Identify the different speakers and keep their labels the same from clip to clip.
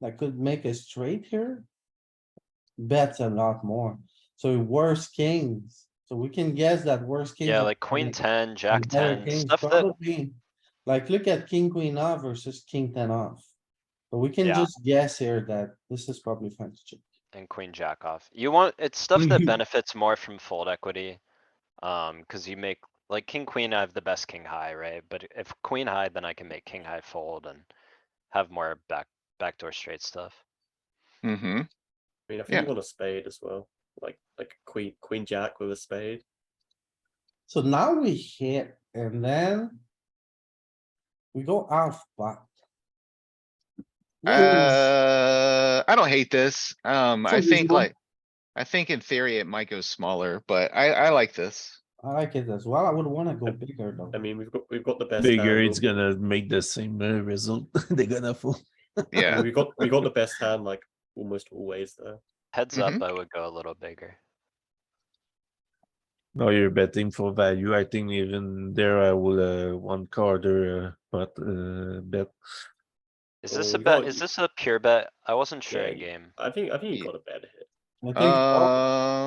Speaker 1: that could make a straight here. Bets a lot more, so worse kings, so we can guess that worse. king
Speaker 2: Yeah,
Speaker 1: of
Speaker 2: like queen
Speaker 1: spades
Speaker 2: ten,
Speaker 1: and
Speaker 2: jack
Speaker 1: better
Speaker 2: ten,
Speaker 1: kings
Speaker 2: stuff that,
Speaker 1: probably- Like, look at king, queen off versus king ten off, but we can
Speaker 2: Yeah.
Speaker 1: just guess here that this is probably fine to check.
Speaker 2: and queen jack off. You want, it's stuff that
Speaker 1: Mhm.
Speaker 2: benefits more from fold equity. Um, cuz you make, like king, queen, I have the best king high, right? But if queen high, then I can make king high fold and have more back, backdoor straight stuff.
Speaker 3: Mm-hmm.
Speaker 4: I mean, I think
Speaker 3: Yeah.
Speaker 4: you want a spade as well, like like queen queen jack with a spade.
Speaker 1: So now we hit and then. We go off pot.
Speaker 3: Uh, I don't hate this. Um,
Speaker 1: It's
Speaker 3: I think
Speaker 1: unreasonable.
Speaker 3: like, I think in theory it might go smaller, but I, I like this.
Speaker 1: I like it as well. I would wanna go bigger though.
Speaker 4: I mean, we've got we've got the best
Speaker 5: Bigger,
Speaker 4: Hand,
Speaker 5: it's gonna make the same uh, result. They're gonna fold.
Speaker 4: I mean,
Speaker 3: Yeah,
Speaker 4: we've got we got the best hand like almost always there.
Speaker 2: Heads up, I would go a little bigger.
Speaker 5: No, you're betting for value. I think even there I will, uh, one quarter, uh, but, uh, bet.
Speaker 2: Is this
Speaker 4: Oh,
Speaker 2: a
Speaker 4: you
Speaker 2: bet?
Speaker 4: got-
Speaker 2: Is this a pure bet? I wasn't sure
Speaker 4: Yeah,
Speaker 2: in
Speaker 4: you-
Speaker 2: game.
Speaker 4: I think I think you
Speaker 3: Ye-
Speaker 4: got a bad hit.
Speaker 1: I think all-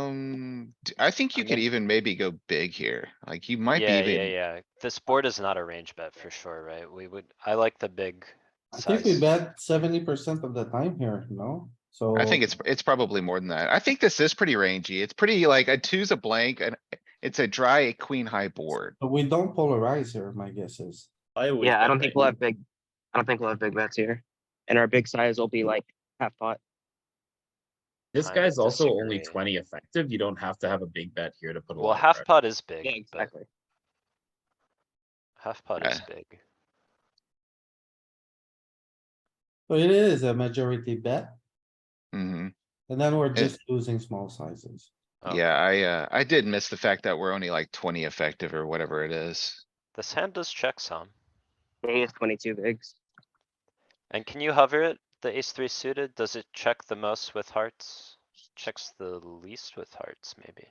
Speaker 3: um, d- I think you could even maybe go big here. Like you might be
Speaker 2: Yeah, yeah,
Speaker 3: even,
Speaker 2: yeah. This board is not a range bet for sure, right? We would, I like the big
Speaker 1: I think we
Speaker 2: size.
Speaker 1: bet seventy percent of the time here, no? So.
Speaker 3: I think it's, it's probably more than that. I think this is pretty rangy. It's pretty like a two's a blank and it's a dry queen high board.
Speaker 1: But we don't polarize here, my guess is.
Speaker 4: I always
Speaker 6: Yeah, I
Speaker 4: bet
Speaker 6: don't think
Speaker 4: big.
Speaker 6: we'll have big, I don't think we'll have big bets here. And our big size will be like half pot.
Speaker 7: This
Speaker 2: Kinda
Speaker 7: guy's also only
Speaker 2: disagree.
Speaker 7: twenty effective. You don't have to have a big bet here to put a lot.
Speaker 2: Well,
Speaker 7: of
Speaker 2: half
Speaker 7: pressure.
Speaker 2: pot is
Speaker 6: Yeah,
Speaker 2: big, but
Speaker 6: exactly.
Speaker 2: half pot is big.
Speaker 1: So it is a majority bet,
Speaker 3: hmm
Speaker 1: and then we're
Speaker 3: It-
Speaker 1: just losing small sizes.
Speaker 2: Oh,
Speaker 3: Yeah, I, uh, I did miss the fact that we're only like twenty effective or whatever it is.
Speaker 2: This hand does check some.
Speaker 6: He has twenty-two bigs.
Speaker 2: And can you hover it? The ace three suited, does it check the most with hearts? Checks the least with hearts, maybe.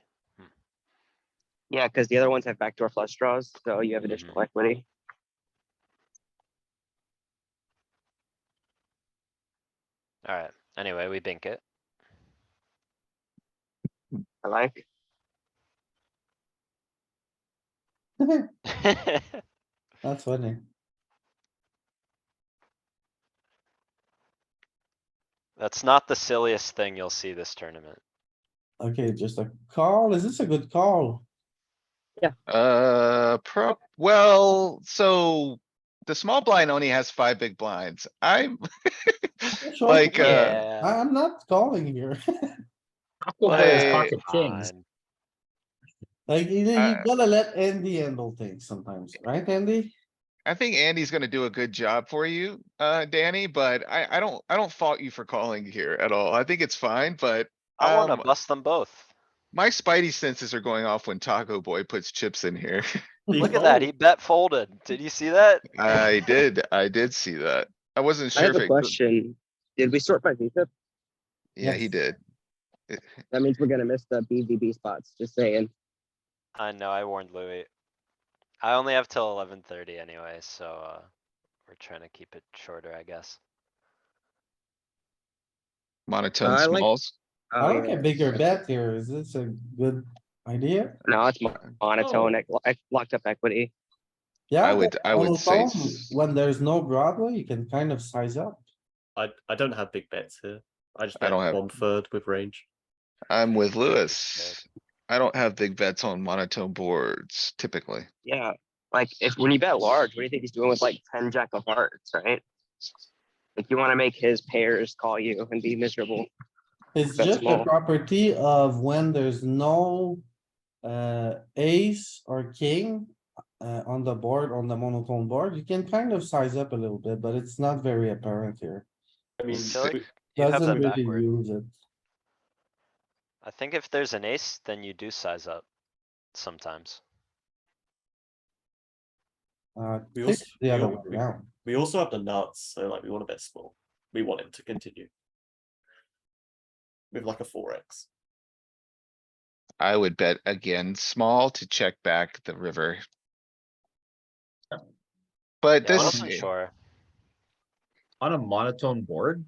Speaker 6: Yeah, because the other ones have backdoor flush draws, so you have additional
Speaker 7: Mm-hmm.
Speaker 6: equity.
Speaker 2: Alright, anyway, we bink it.
Speaker 6: I like.
Speaker 1: That's funny.
Speaker 2: That's not the silliest thing you'll see this tournament.
Speaker 1: Okay, just a call. Is this a good call?
Speaker 3: Uh, prop, well, so the small blind only has five big blinds. I'm
Speaker 1: Sure.
Speaker 3: like, uh,
Speaker 1: I-
Speaker 2: Yeah.
Speaker 1: I'm not calling here.
Speaker 7: Rocco has
Speaker 3: Like-
Speaker 7: pocket kings.
Speaker 2: Fine.
Speaker 1: Like, you know, you
Speaker 3: Uh,
Speaker 1: gotta let Andy handle things sometimes, right, Andy?
Speaker 3: I think Andy's gonna do a good job for you, uh, Danny, but I, I don't, I don't fault you for calling here at all. I think it's fine, but
Speaker 2: I wanna
Speaker 3: um,
Speaker 2: bust them both.
Speaker 3: my spidey senses are going off when Taco Boy puts chips in here.
Speaker 4: You
Speaker 2: Look at that,
Speaker 4: fold.
Speaker 2: he bet folded. Did you see that?
Speaker 3: I did, I did see that. I wasn't
Speaker 6: I
Speaker 3: sure
Speaker 6: have
Speaker 3: if
Speaker 6: a
Speaker 3: it,
Speaker 6: question. Did we sort by VFIP?
Speaker 3: yeah, he
Speaker 1: Yes.
Speaker 3: did.
Speaker 6: That means we're gonna miss the BVB spots, just saying.
Speaker 2: I know, I warned Louis. I only have till eleven thirty anyway, so, uh, we're trying to keep it shorter, I guess.
Speaker 3: Monotone
Speaker 6: I like-
Speaker 3: smalls.
Speaker 1: I
Speaker 6: Oh,
Speaker 1: like a
Speaker 6: yeah.
Speaker 1: bigger bet here. Is this a good idea?
Speaker 6: No, it's mo-
Speaker 3: Oh.
Speaker 6: monotone,
Speaker 7: Oh.
Speaker 6: ec- ec- locked up equity.
Speaker 1: Yeah.
Speaker 3: I would, I would say,
Speaker 1: monotone,
Speaker 3: s-
Speaker 1: When there's no Broadway, you can kind of size up.
Speaker 4: I
Speaker 6: e-,
Speaker 4: I don't have big bets here. I just
Speaker 3: I
Speaker 4: bet
Speaker 3: don't have-
Speaker 4: one third with range.
Speaker 3: I'm with
Speaker 2: think it's
Speaker 3: Lewis. I don't have big bets on monotone boards typically.
Speaker 6: Yeah, like if, when you bet large, what do you think he's doing with like ten jack of hearts, right? Like you wanna make his pairs call you and be miserable.
Speaker 1: It's
Speaker 6: That's
Speaker 1: just the
Speaker 6: small.
Speaker 1: property of when there's no uh ace or king uh on the board, on the monotone board, you can kind of size up a little bit, but it's not very apparent here.
Speaker 4: I mean,
Speaker 3: So,
Speaker 4: we-
Speaker 2: You have
Speaker 1: Doesn't
Speaker 2: them
Speaker 1: really
Speaker 2: backward.
Speaker 1: use it.
Speaker 2: I think if there's an ace, then you do size up sometimes.
Speaker 1: Uh,
Speaker 4: We
Speaker 1: think
Speaker 4: also-
Speaker 1: the
Speaker 4: we
Speaker 1: other
Speaker 4: al-
Speaker 1: way around.
Speaker 4: we also have the nuts, so like we want a bet small. We want him to continue with like a four x.
Speaker 3: I would bet again, small to check back the river. But
Speaker 2: Yeah, I
Speaker 3: this, eh,
Speaker 2: wasn't sure.
Speaker 7: On a monotone board,